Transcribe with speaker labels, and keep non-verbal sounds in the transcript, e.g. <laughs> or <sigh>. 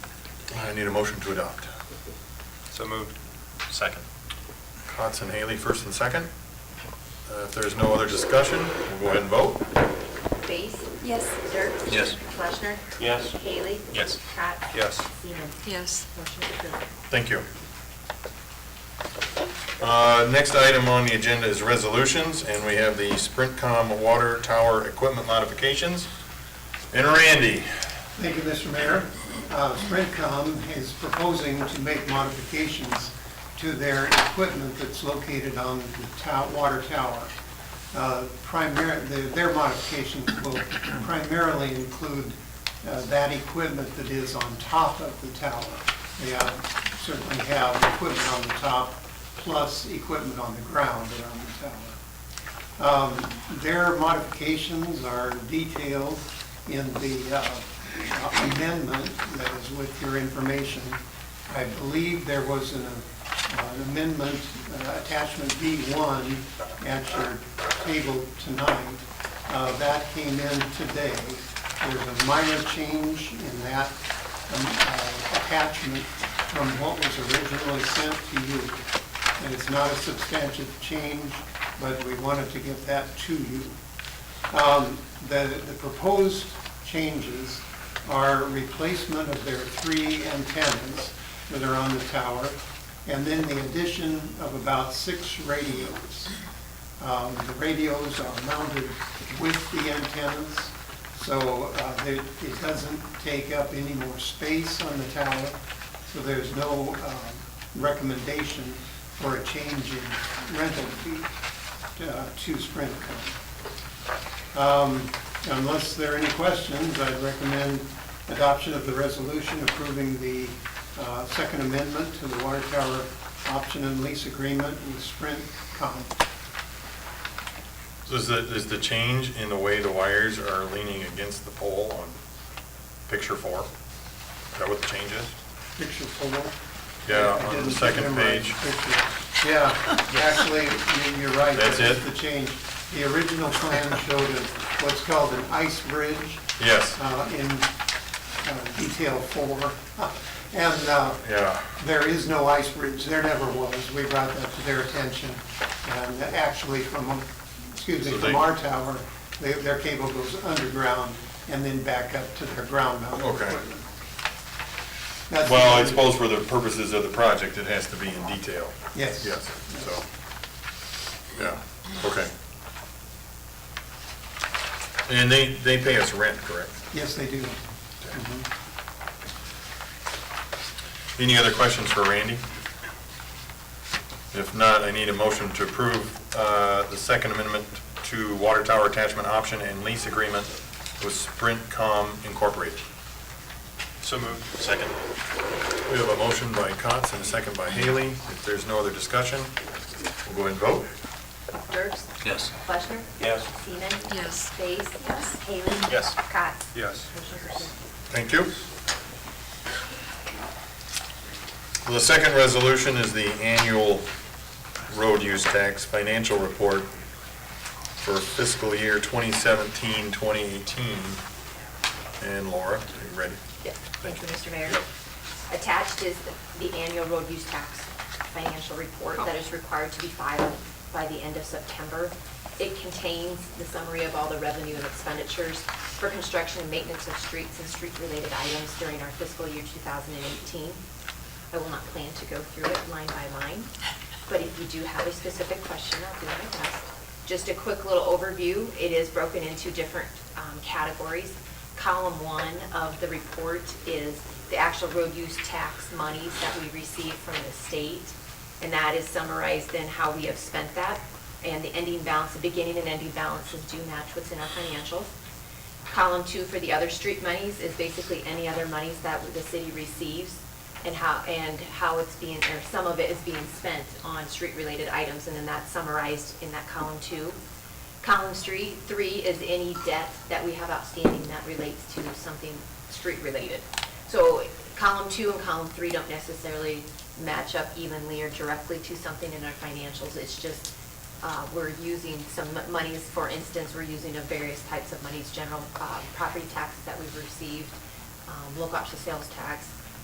Speaker 1: I need a motion to adopt.
Speaker 2: So moved. Second.
Speaker 1: Cots and Haley, first and second. Uh, If there's no other discussion, we'll go ahead and vote.
Speaker 3: Base?
Speaker 4: Yes.
Speaker 3: Dirk?
Speaker 2: Yes.
Speaker 3: Fleischner?
Speaker 2: Yes.
Speaker 3: Haley?
Speaker 2: Yes.
Speaker 3: Cox?
Speaker 2: Yes.
Speaker 3: Seaman?
Speaker 4: Yes.
Speaker 3: Motion approved.
Speaker 1: Thank you. Uh, Next item on the agenda is resolutions, and we have the Sprintcom water tower equipment modifications. And Randy,
Speaker 5: Thank you, Mr. Mayor. Uh, Sprintcom is proposing to make modifications to their equipment that's located on the tow- water tower. Uh, primar- the- their modifications will primarily include uh, that equipment that is on top of the tower. They uh, certainly have equipment on the top, plus equipment on the ground around the tower. Um, Their modifications are detailed in the uh, amendment that is with your information. I believe there was an uh, an amendment, uh, attachment B1 at your table tonight. Uh, That came in today. There's a minor change in that um, uh, attachment from what was originally sent to you. And it's not a substantive change, but we wanted to get that to you. Um, The the proposed changes are replacement of their three antennas that are on the tower, and then the addition of about six radios. Um, The radios are mounted with the antennas, so uh, they- it doesn't take up any more space on the tower, so there's no um, recommendation for a change in rental fee uh, to Sprintcom. Um, Unless there are any questions, I'd recommend adoption of the resolution approving the uh, Second Amendment to the Water Tower Option and Lease Agreement with Sprint Com.
Speaker 1: is the, is the change in the way the wires are leaning against the pole on picture four? Is that what the change is?
Speaker 5: Picture four.
Speaker 1: Yeah,
Speaker 5: I
Speaker 1: on
Speaker 5: didn't
Speaker 1: the second
Speaker 5: memorize
Speaker 1: page.
Speaker 5: the picture. Yeah, actually, you- you're right.
Speaker 1: That's
Speaker 5: that is
Speaker 1: it?
Speaker 5: The change. The original plan showed a- what's called an ice bridge
Speaker 1: Yes,
Speaker 5: uh, in uh, detail four. <laughs> And uh,
Speaker 1: yeah.
Speaker 5: There is no ice bridge, there never was. We brought that to their attention. And actually from, excuse me,
Speaker 1: So
Speaker 5: from
Speaker 1: they-
Speaker 5: our tower, they- their cable goes underground and then back up to their ground mount.
Speaker 1: Okay.
Speaker 5: equipment. That's the
Speaker 1: Well, I
Speaker 5: only-
Speaker 1: suppose for the purposes of the project, it has to be in detail.
Speaker 5: Yes.
Speaker 1: Yes, so, yeah, okay. And they, they pay us rent, correct?
Speaker 5: Yes, they do. Mhm.
Speaker 1: Any other questions for Randy? If not, I need a motion to approve uh, the Second Amendment to Water Tower Attachment Option and Lease Agreement with Sprintcom Incorporated.
Speaker 2: So moved. Second.
Speaker 1: We have a motion by Cotts and a second by Haley. If there's no other discussion, we'll go ahead and vote.
Speaker 3: Dirk?
Speaker 2: Yes.
Speaker 3: Fleischner?
Speaker 2: Yes.
Speaker 3: Seaman?
Speaker 4: Yes.
Speaker 3: Base?
Speaker 4: Yes.
Speaker 3: Haley?
Speaker 2: Yes.
Speaker 3: Cox?
Speaker 2: Yes.
Speaker 3: Motion approved.
Speaker 1: Thank you. The second resolution is the annual road use tax financial report for fiscal year 2017, 2018. And Laura, are you ready?
Speaker 3: Yep. Thank you, Mr. Mayor.
Speaker 1: Yep.
Speaker 3: Attached is the the annual road use tax financial report
Speaker 4: Oh.
Speaker 3: that is required to be filed by the end of September. It contains the summary of all the revenue and expenditures for construction and maintenance of streets and street-related items during our fiscal year 2018. I will not plan to go through it line by line, but if you do have a specific question, I'll do my best. Just a quick little overview, it is broken into different um, categories. Column one of the report is the actual road use tax monies that we receive from the state, and that is summarized in how we have spent that, and the ending balance, the beginning and ending balances do match what's in our financials. Column two for the other street monies is basically any other monies that the city receives and how, and how it's being, or some of it is being spent on street-related items, and then that's summarized in that column two. Column three, three is any debt that we have outstanding that relates to something street-related. So column two and column three don't necessarily match up evenly or directly to something in our financials. It's just uh, we're using some m- monies, for instance, we're using of various types of monies, general uh, property taxes that we've received, um, local option sales tax,